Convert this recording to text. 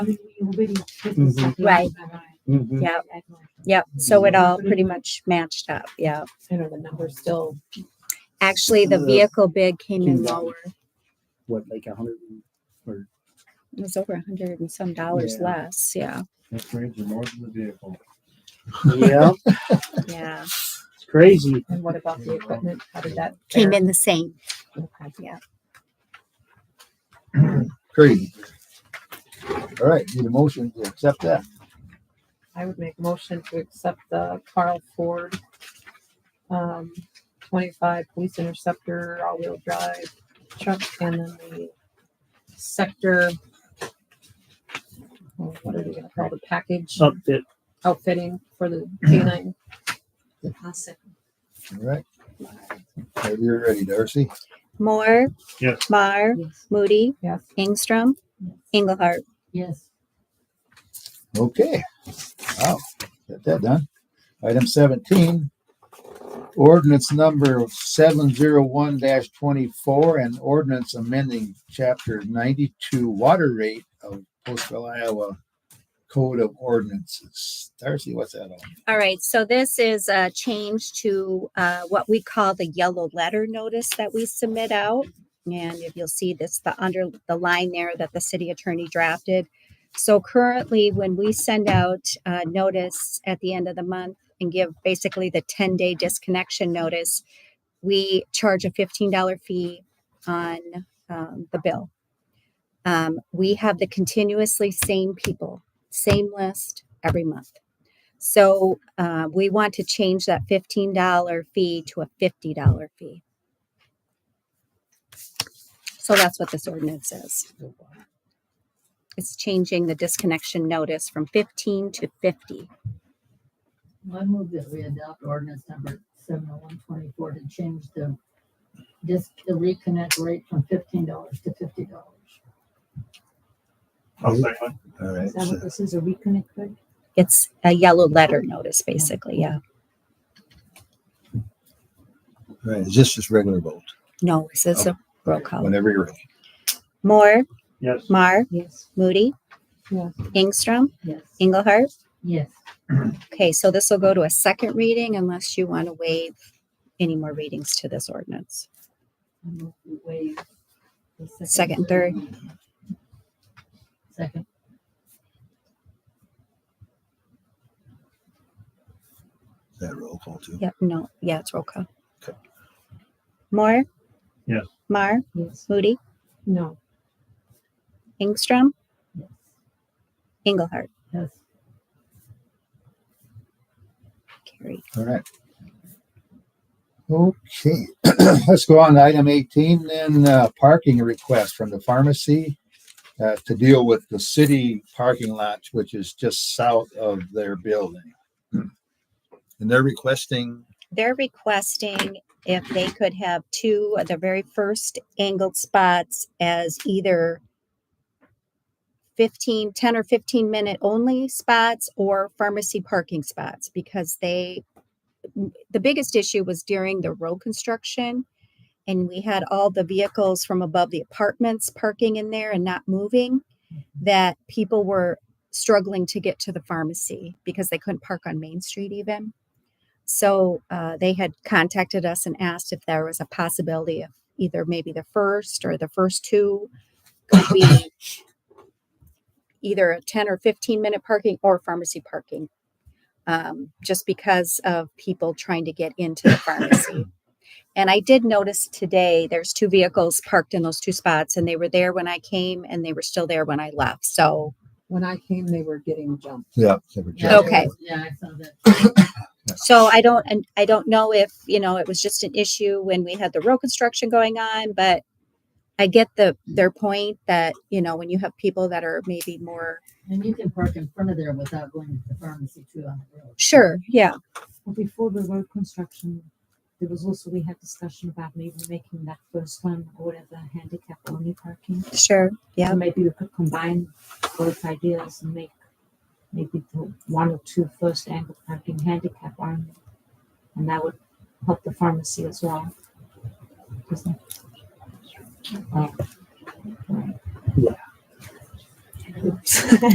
Right. Mhm. Yep. Yep. So it all pretty much matched up. Yeah. I know the number's still. Actually, the Uh, vehicle bid came in $15. lower. What, like a hundred, and- or It was over a hundred and some dollars Yeah. less. Yeah. upgrades are more than the vehicle. yeah, Yeah. it's crazy. And what about the equipment? How did that? Came in the same. in. Crazy. All right, need a motion to accept that. I would make a motion to accept the Carl Ford um, twenty-five police interceptor all-wheel drive truck and then the sector. oh, What are they gonna call the package Upfit, outfitting for the canine? All right. Whenever you're ready, Darcy. Moore. Yes. Mar. Moody. Yes. Ingstrom. Engelhardt. Yes. Okay. Wow, got that done. Item seventeen. Ordinance number seven zero one twenty-four and ordinance amending chapter ninety-two water rate of Postville, Iowa Code of Ordinances. Darcy, what's that all? All right, so this is a change to uh, what we call the yellow letter notice that we submit out. And if you'll see this, the under the line there that the city attorney drafted. So currently, when we send out a notice at the end of the month and give basically the 10 day disconnection notice, we charge a $15 fee on um, the bill. Um, we have the continuously same people, same list every month. So uh, we want to change that $15 fee to a $50 fee. So that's what this ordinance is. It's changing the disconnection notice from 15 to 50. I move that we adopt ordinance number seven oh one twenty-four to change the disc, the reconnect rate from fifteen dollars to fifty dollars. All right. Is that what this is, a reconnect rate? It's a yellow letter notice, basically. Yeah. All right, is this just regular vote? No, this is a roll call. Whenever you're ready. Moore, yes, Mar, Yes. Moody, Yes. Ingstrom, Yes. Engelhardt. Yes. Okay, so this will go to a second reading unless you want to waive any more readings to this ordinance. I move we waive the Second, third. reading. Second. Is That roll call too. Yep, no, yeah, it's roll call. Okay. Moore? Yes. Mar, Yes. Moody, No. Ingstrom, Yes. Engelhardt, Yes. carried. All right. Okay, let's go on to item eighteen, then, uh, parking request from the pharmacy uh, to deal with the city parking lot, which is just south of their building. Hmm. And they're requesting, They're requesting if they could have two of the very first angled spots as either 15, 10 or 15 minute only spots or pharmacy parking spots because they, the biggest issue was during the road construction. And we had all the vehicles from above the apartments parking in there and not moving, that people were struggling to get to the pharmacy because they couldn't park on Main Street even. So uh, they had contacted us and asked if there was a possibility of either maybe the first or the first two could be either a 10 or 15 minute parking or pharmacy parking um, just because of people trying to get into the pharmacy. And I did notice today there's two vehicles parked in those two spots, and they were there when I came and they were still there when I left. So, When I came, they were getting jumped. yeah. they were Yeah, just- Okay. Yeah, I saw that. so I don't, and I don't know if you know it was just an issue when we had the road construction going on, but I get the their point that you know when you have people that are maybe more And you can park in front of there without going to the pharmacy too on the road. sure, yeah, Well, before the road construction, there was also, we had discussion about maybe making that first one or whatever handicap only parking. sure, yeah. So maybe we could combine both ideas and make maybe the one or two first angle parking handicap only. And that would help the pharmacy as well. Because they- Oh. Right.